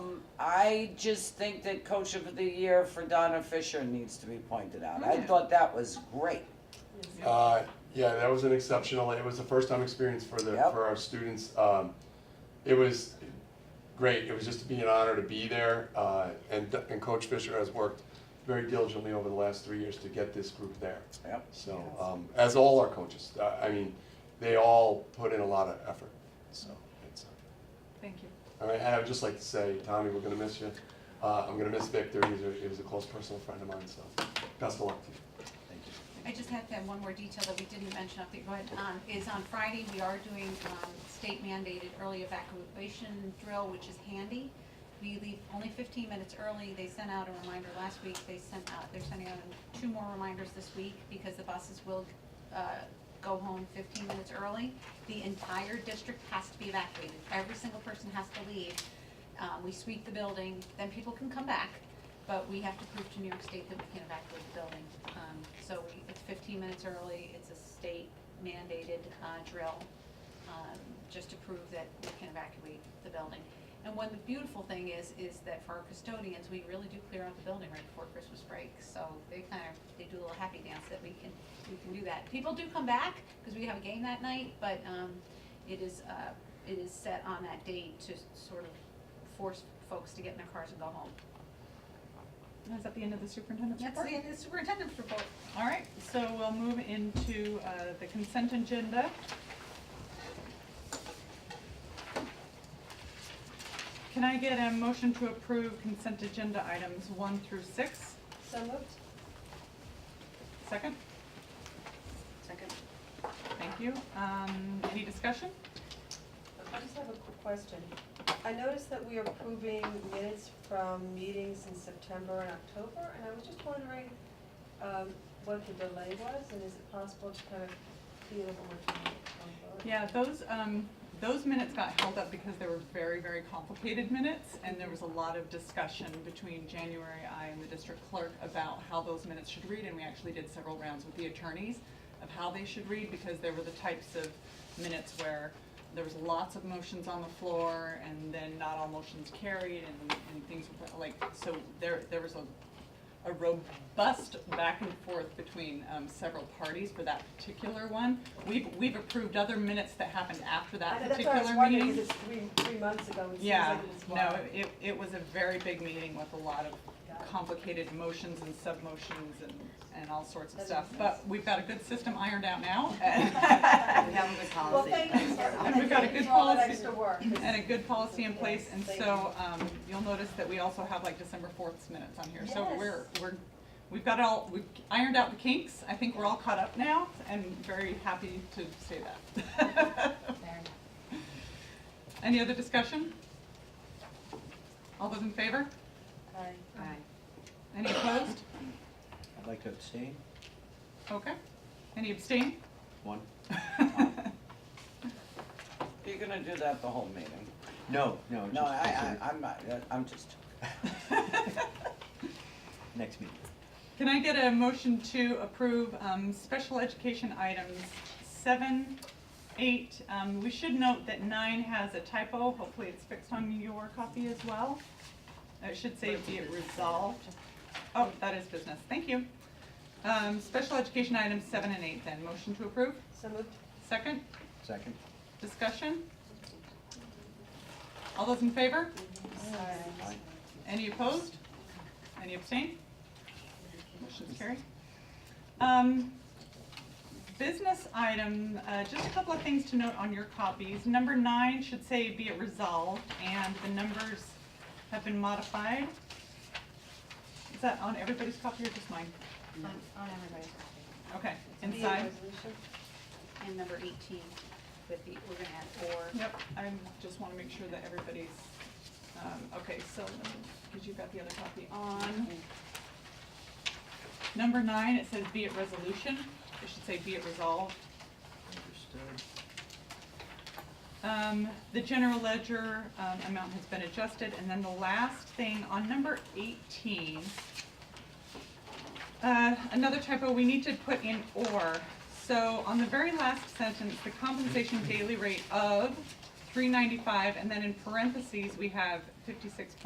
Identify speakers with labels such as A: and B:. A: I just think that coach of the year for Donna Fisher needs to be pointed out. I
B: Yeah.
A: thought that was great.
C: Uh, yeah, that was an exceptional, it was a first time experience for the,
A: Yep.
C: for our students. Um, it was great, it was just to be an honor to be there, uh, and, and Coach Fisher has worked very diligently over the last three years to get this group there.
A: Yep.
C: So, um, as all our coaches, uh, I, I mean, they all put in a lot of effort, so it's,
B: Thank you.
C: all right, and I would just like to say, Tommy, we're gonna miss you. Uh, I'm gonna miss Victor, he's a, he was a close personal friend of mine, so best of luck to you.
A: Thank you.
D: I just have to have one more detail that we didn't mention up there, but, um, is on Friday, we are doing, um, state mandated early evacuation drill, which is handy. We leave only fifteen minutes early, they sent out a reminder last week, they sent out, they're sending out two more reminders this week, because the buses will, uh, go home fifteen minutes early. The entire district has to be evacuated, every single person has to leave. Uh, we sweep the building, then people can come back, but we have to prove to New York State that we can evacuate the building. Um, So we- it's 15 minutes early, it's a state mandated uh, drill, um, just to prove that we can evacuate the building. And one beautiful thing is, is that for our custodians, we really do clear out the building right before Christmas break. So they kind of, they do a little happy dance that we can, we can do that. People do come back, because we have a game that night, but um, it is, uh, it is set on that date to sort of force folks to get in their cars and go home.
B: Is that the end of the superintendent's
D: That's
B: report?
D: the end of the superintendent's report.
B: All right, so we'll move into uh, the consent agenda. Can I get a motion to approve consent agenda items one through six?
E: So moved.
B: Second?
E: Second.
B: Thank you. Um, Any discussion?
E: I just have a quick question. I noticed that we are approving minutes from meetings in September and October, and I was just wondering um, what the delay was, and is it possible to kind of feel what we're trying to
B: Yeah, those, um, those minutes got held up because they were very, very complicated minutes, and there was a lot of discussion between January, I and the district clerk about how those minutes should read, and we actually did several rounds with the attorneys of how they should read, because there were the types of minutes where there was lots of motions on the floor, and then not all motions carried, and, and things were, like, so there, there was a, a robust back and forth between, um, several parties for that particular one. We've, we've approved other minutes that happened after that
E: I-
B: particular
E: That's
B: meeting.
E: why I was wondering, because it's three, three months ago, it seems
B: Yeah,
E: like it was
B: no,
E: wild.
B: it, it was a very big meeting with a lot
E: Got it.
B: of complicated motions and sub-motions and, and all sorts of
E: That
B: stuff.
E: makes
B: But we've got a good system ironed out now.
E: We
B: And
E: have Well, thank you, sir.
B: And we've got a good
E: Thank you for all that
B: policy.
E: extra work. 'cause-
B: a good policy in place, and
E: Yes,
B: so, um, you'll notice that we also have like December fourth's minutes on here. So
E: Yes.
B: we're, we're, we've got all, we've ironed out the kinks. I think we're all caught up now, and very happy to say that. Any other discussion? All those in favor?
E: Aye.
B: Any opposed?
F: I'd like to abstain.
B: Okay. Any abstain?
F: One.
A: You're gonna do that the whole meeting.
F: No, no.
A: No,
F: just
A: I,
F: consider-
A: I, I'm not, I'm just,
F: Next meeting.
B: Can I get a motion to approve um, special education items seven, eight? Um, We should note that nine has a typo. Hopefully it's fixed on your copy as well. It should say be it resolved. Oh, that is business. Thank you. Um, Special education items seven and eight then. Motion to approve?
E: So moved.
B: Second?
F: Second.
B: Discussion? All those in favor?
E: Aye.
F: Aye.
B: Any opposed? Any abstain? Motion's carried. Um, Business item, uh, just a couple of things to note on your copies. Number nine should say be it resolved, and the numbers have been modified. Is that on everybody's copy or just mine?
D: On on everybody's copy.
B: Okay,
E: Be a
B: inside.
E: resolution.
D: And number 18 with the, we're going to add or.
B: Yep, I just want to make sure that everybody's, um, okay, so, because you've got the other copy on. Number nine, it says be it resolution, it should say be it resolved.
F: Understood.
B: Um, the general ledger, um, amount has been adjusted, and then the last thing, on number eighteen, uh, another typo, we need to put in or, so on the very last sentence, the compensation daily rate of three ninety-five, and then in parentheses, we have fifty-six